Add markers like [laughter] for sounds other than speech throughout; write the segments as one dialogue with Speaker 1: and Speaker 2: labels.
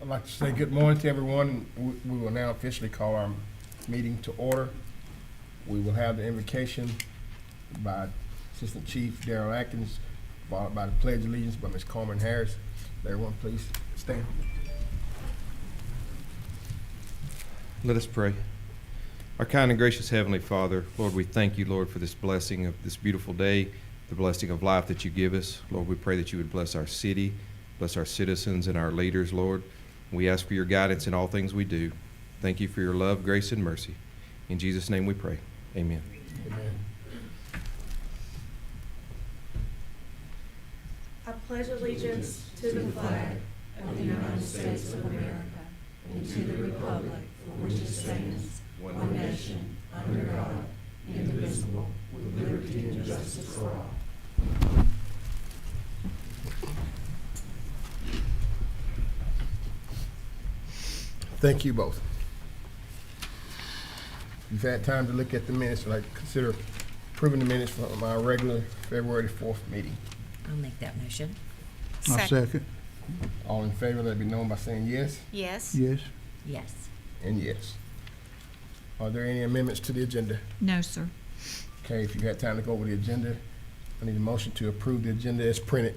Speaker 1: I'd like to say good morning to everyone. We- We will now officially call our meeting to order. We will have the invocation by Assistant Chief Darrell Atkins, followed by the pledge of allegiance by Ms. Coleman Harris. Everyone, please stand.
Speaker 2: Let us pray. Our kind and gracious Heavenly Father, Lord, we thank you, Lord, for this blessing of this beautiful day, the blessing of life that you give us. Lord, we pray that you would bless our city, bless our citizens and our leaders, Lord. We ask for your guidance in all things we do. Thank you for your love, grace, and mercy. In Jesus' name we pray. Amen.
Speaker 1: Amen.
Speaker 3: I pledge allegiance to the flag of the United States of America and to the republic for which it stands, one nation, under God, indivisible, with liberty and justice for all.
Speaker 1: Thank you both. You've had time to look at the minutes, like consider approving the minutes from our regular February fourth meeting.
Speaker 4: I'll make that motion.
Speaker 5: I second,
Speaker 1: All in favor, let it be known by saying yes
Speaker 3: Yes.
Speaker 5: yes.
Speaker 4: Yes.
Speaker 1: and yes. Are there any amendments to the agenda?
Speaker 6: No, sir.
Speaker 1: Okay, if you had time to go over the agenda, I need a motion to approve the agenda as printed.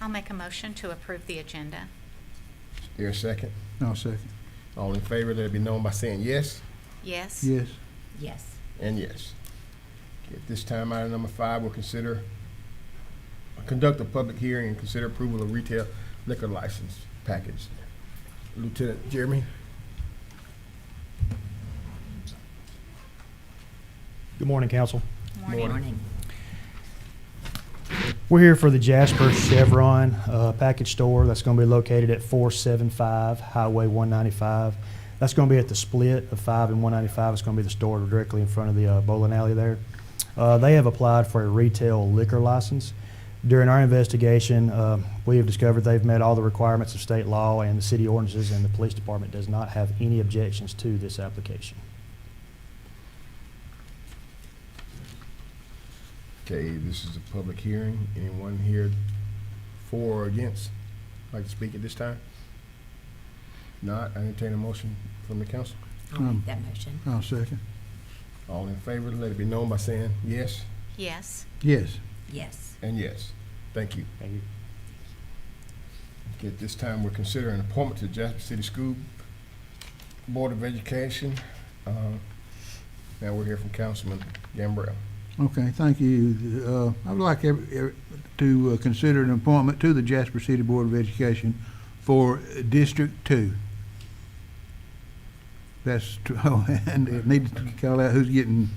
Speaker 7: I'll make a motion to approve the agenda.
Speaker 1: Is there a second?
Speaker 5: I'll second,
Speaker 1: All in favor, let it be known by saying yes
Speaker 7: Yes?
Speaker 5: yes.
Speaker 4: Yes.
Speaker 1: and yes. Okay, At this time, item number five, we'll consider, conduct a public hearing and consider approval of retail liquor license package. Lieutenant Jeremy?
Speaker 8: Good morning, Council.
Speaker 7: Morning.
Speaker 4: Morning.
Speaker 8: We're here for the Jasper Chevron uh, package store that's going to be located at 475 Highway 195. That's going to be at the split of 5 and 195. It's going to be the store directly in front of the uh, bowling alley there. Uh, They have applied for a retail liquor license. During our investigation, uh, we have discovered they've met all the requirements of state law and the city ordinances, and the police department does not have any objections to this application.
Speaker 1: Okay, this is a public hearing. Anyone here for or against like to speak at this time? Not, I entertain a motion from the council.
Speaker 4: I'll
Speaker 5: Um,
Speaker 4: make that motion.
Speaker 5: I'll second,
Speaker 1: All in favor, let it be known by saying yes
Speaker 7: Yes?
Speaker 5: yes.
Speaker 4: Yes.
Speaker 1: and yes. Thank you.
Speaker 8: Thank you.
Speaker 1: Okay, At this time, we're considering appointment to the Jasper City School Board of Education. Uh, Now we're here from Councilman Gambrell.
Speaker 5: Okay, thank you. Uh, I would like every- every- to uh, consider an appointment to the Jasper City Board of Education for District Two. That's, [laughs] tr- oh, and it needed to call out who's getting,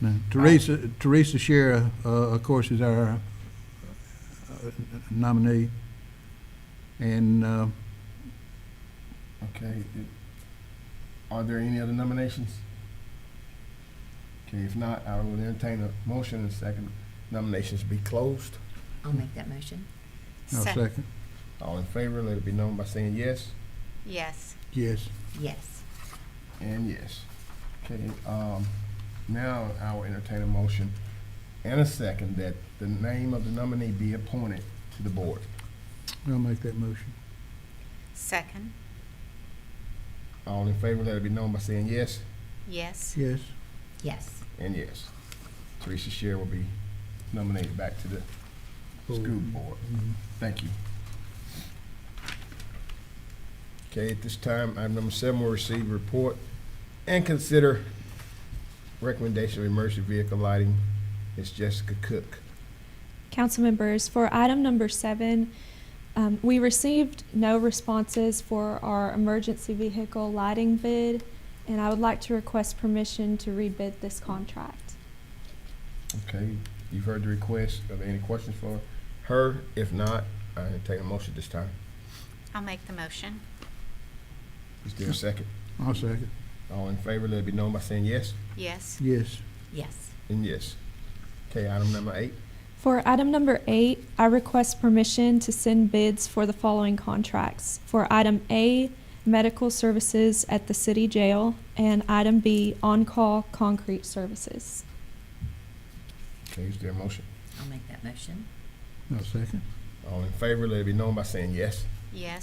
Speaker 5: no, Teresa, Teresa Shera, uh, of course, is our uh, nominee. And, uh,
Speaker 1: Okay, it- are there any other nominations? Okay, if not, I will entertain a motion and second nominations be closed.
Speaker 4: I'll make that motion.
Speaker 5: I'll
Speaker 7: Sec-
Speaker 5: second,
Speaker 1: All in favor, let it be known by saying yes
Speaker 7: Yes.
Speaker 5: yes.
Speaker 4: Yes.
Speaker 1: and yes. Okay, um, now I will entertain a motion and a second that the name of the nominee be appointed to the board.
Speaker 5: I'll make that motion.
Speaker 7: Second?
Speaker 1: All in favor, let it be known by saying yes
Speaker 7: Yes?
Speaker 5: Yes,
Speaker 4: Yes.
Speaker 1: and yes. Teresa Sher will be nominated back to the school board.
Speaker 5: Mm-hmm.
Speaker 1: Thank you. Okay, at this time, item number seven, we'll receive report and consider recommendation of emergency vehicle lighting. It's Jessica Cook.
Speaker 9: Council members, for item number seven, um, we received no responses for our emergency vehicle lighting bid, and I would like to request permission to rebid this contract.
Speaker 1: Okay, you've heard the request. Are there any questions for her? If not, I entertain a motion this time.
Speaker 7: I'll make the motion.
Speaker 1: Is there a second?
Speaker 5: I'll second,
Speaker 1: All in favor, let it be known by saying yes
Speaker 7: Yes?
Speaker 5: yes.
Speaker 4: Yes.
Speaker 1: and yes. Okay, item number eight.
Speaker 9: For item number eight, I request permission to send bids for the following contracts. For item A, medical services at the city jail, and item B, on-call concrete services.
Speaker 1: Okay, is there a motion?
Speaker 4: I'll make that motion.
Speaker 5: I'll second.
Speaker 1: All in favor, let it be known by saying yes
Speaker 7: Yes?